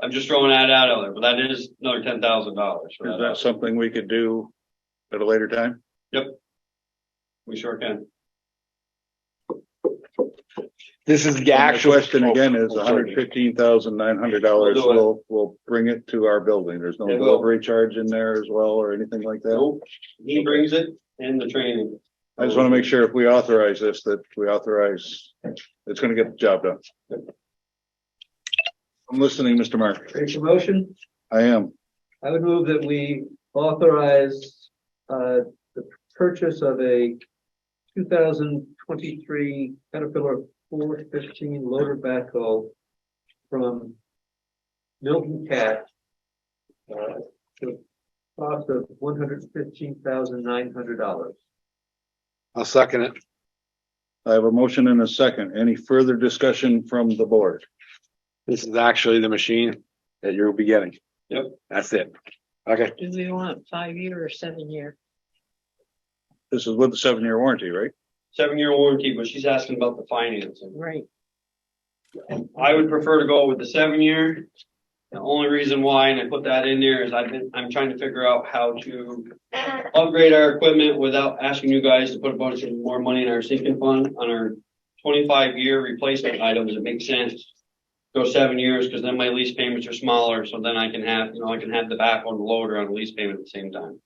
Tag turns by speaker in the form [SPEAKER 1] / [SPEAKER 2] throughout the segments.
[SPEAKER 1] I'm just throwing that out there, but that is another ten thousand dollars.
[SPEAKER 2] Is that something we could do at a later time?
[SPEAKER 1] We sure can.
[SPEAKER 3] This is the
[SPEAKER 2] And The
[SPEAKER 3] actual.
[SPEAKER 2] Question again is
[SPEAKER 3] Oh,
[SPEAKER 2] hundred fifteen thousand nine hundred dollars
[SPEAKER 1] We'll do it.
[SPEAKER 2] will, will bring it to our building. There's no
[SPEAKER 1] It will.
[SPEAKER 2] delivery charge in there as well or anything like that.
[SPEAKER 1] Nope, he brings it in the training.
[SPEAKER 2] I just want to make sure if we authorize this, that we authorize, it's gonna get the job done. I'm listening, Mr. Mark.
[SPEAKER 4] Make a motion.
[SPEAKER 2] I am.
[SPEAKER 4] I would move that we authorize uh the purchase of a two thousand twenty-three Caterpillar four fifteen loader backhoe from Milton Cat. uh, to a Cost of one hundred fifteen thousand nine hundred dollars.
[SPEAKER 3] I'll second it.
[SPEAKER 2] I have a motion and a second. Any further discussion from the board?
[SPEAKER 3] This is actually the machine that you'll be getting.
[SPEAKER 1] Yep.
[SPEAKER 3] That's it. Okay,
[SPEAKER 5] Do we want five year or seven year?
[SPEAKER 2] This is with the seven-year warranty, right?
[SPEAKER 1] Seven-year warranty, but she's asking about the financing.
[SPEAKER 5] Right.
[SPEAKER 1] I would prefer to go with the seven-year. The only reason why, and I put that in there, is I've been, I'm trying to figure out how to upgrade our equipment without asking you guys to put a bunch of more money in our sinking fund on our twenty-five year replacement items. It makes sense. Go seven years, because then my lease payments are smaller, so then I can have, you know, I can have the back on the loader on the lease payment at the same time.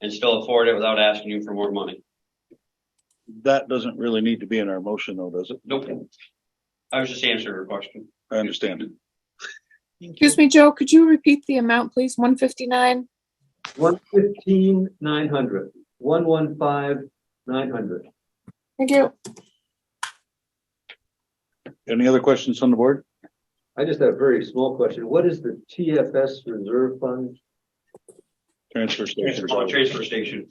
[SPEAKER 1] And still afford it without asking you for more money.
[SPEAKER 2] That doesn't really need to be in our motion though, does it?
[SPEAKER 1] Nope. I was just answering her question.
[SPEAKER 2] I understand.
[SPEAKER 6] Excuse me, Joe, could you repeat the amount, please? One fifty-nine?
[SPEAKER 4] One fifteen nine hundred, one one five nine hundred.
[SPEAKER 6] Thank you.
[SPEAKER 2] Any other questions on the board?
[SPEAKER 4] I just have a very small question. What is the TFS reserve fund?
[SPEAKER 2] Transfer station.
[SPEAKER 1] Oh, Transfer station.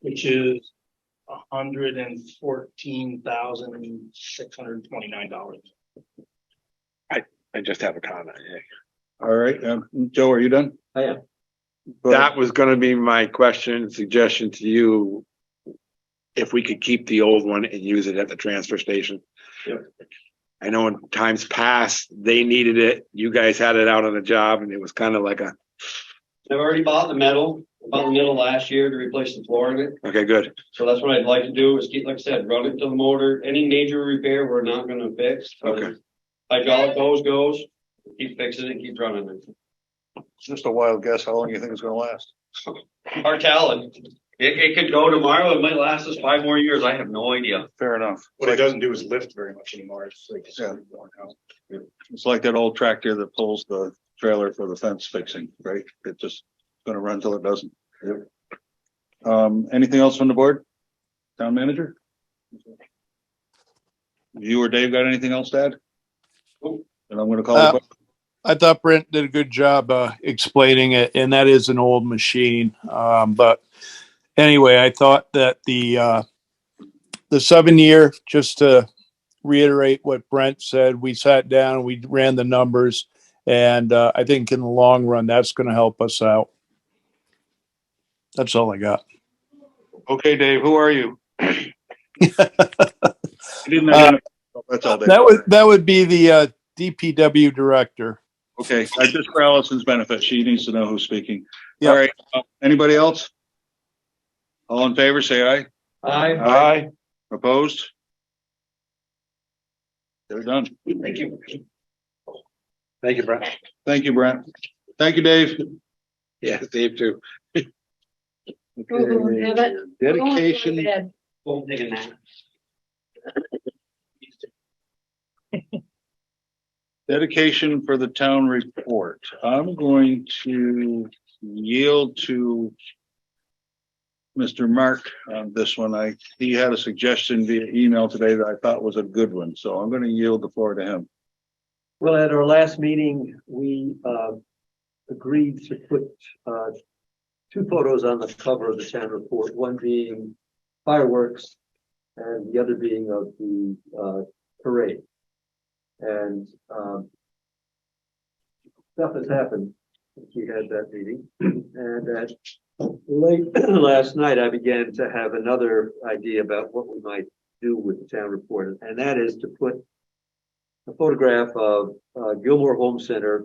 [SPEAKER 7] which is hundred and fourteen thousand six hundred and twenty-nine dollars.
[SPEAKER 3] I just have a comment.
[SPEAKER 2] All right, um, Joe, are you done?
[SPEAKER 4] I am.
[SPEAKER 2] Go ahead.
[SPEAKER 3] That was gonna be my question, suggestion to you. If we could keep the old one and use it at the transfer station.
[SPEAKER 1] Yep.
[SPEAKER 3] I know in times past, they needed it. You guys had it out on a job and it was kind of like a,
[SPEAKER 1] I've already bought the metal, bought the metal last year to replace the floor in it.
[SPEAKER 3] okay, good.
[SPEAKER 1] So that's what I'd like to do is keep, like I said, run it to the motor. Any major repair, we're not gonna fix.
[SPEAKER 3] Okay.
[SPEAKER 1] Hydraulic hose goes, keep fixing it, keep running it.
[SPEAKER 2] Just a wild guess how long you think it's gonna last.
[SPEAKER 1] Our talent, it, it could go tomorrow. It might last us five more years. I have no idea.
[SPEAKER 2] Fair enough.
[SPEAKER 7] What it doesn't do is lift very much anymore. It's like. it's
[SPEAKER 2] Yeah.
[SPEAKER 7] worn out.
[SPEAKER 2] It's like that old tractor that pulls the trailer for the fence fixing, right? It just gonna run till it doesn't. Um, anything else from the board? Town manager? You or Dave got anything else to add?
[SPEAKER 1] Nope.
[SPEAKER 2] And I'm gonna call.
[SPEAKER 8] Uh,
[SPEAKER 2] the que-
[SPEAKER 8] I thought Brent did a good job uh, explaining it, and that is an old machine. Um, but anyway, I thought that the uh, the seven year, just to reiterate what Brent said, we sat down, we ran the numbers, and uh, I think in the long run, that's going to help us out. That's all I got.
[SPEAKER 2] Okay, Dave, who are you? You didn't
[SPEAKER 8] Uh,
[SPEAKER 2] identify yourself, That's all, Dave.
[SPEAKER 8] That would that would be the uh, DPW director.
[SPEAKER 2] Okay, I just for Allison's benefit, she needs to know who's speaking.
[SPEAKER 8] Yeah.
[SPEAKER 2] All right, uh, anybody else? All in favor, say aye.
[SPEAKER 4] I.
[SPEAKER 2] Aye. Opposed? They're done.
[SPEAKER 1] Thank you.
[SPEAKER 3] Thank you, Brett.
[SPEAKER 2] Thank you, Brent. Thank you, Dave.
[SPEAKER 3] Yeah, Dave too.
[SPEAKER 5] yeah, that-
[SPEAKER 3] Dedication.
[SPEAKER 1] Well, digging that.
[SPEAKER 2] Dedication for the town report. I'm going to yield to Mr. Mark on this one. I, he had a suggestion via email today that I thought was a good one, so I'm gonna yield the floor to him.
[SPEAKER 4] Well, at our last meeting, we uh, agreed to put uh, two photos on the cover of the town report, one being fireworks and the other being of the uh, parade. And um, stuff has happened since we had that meeting. And at late last night, I began to have another idea about what we might do with the town report, and that is to put a photograph of uh, Gilmore Home Center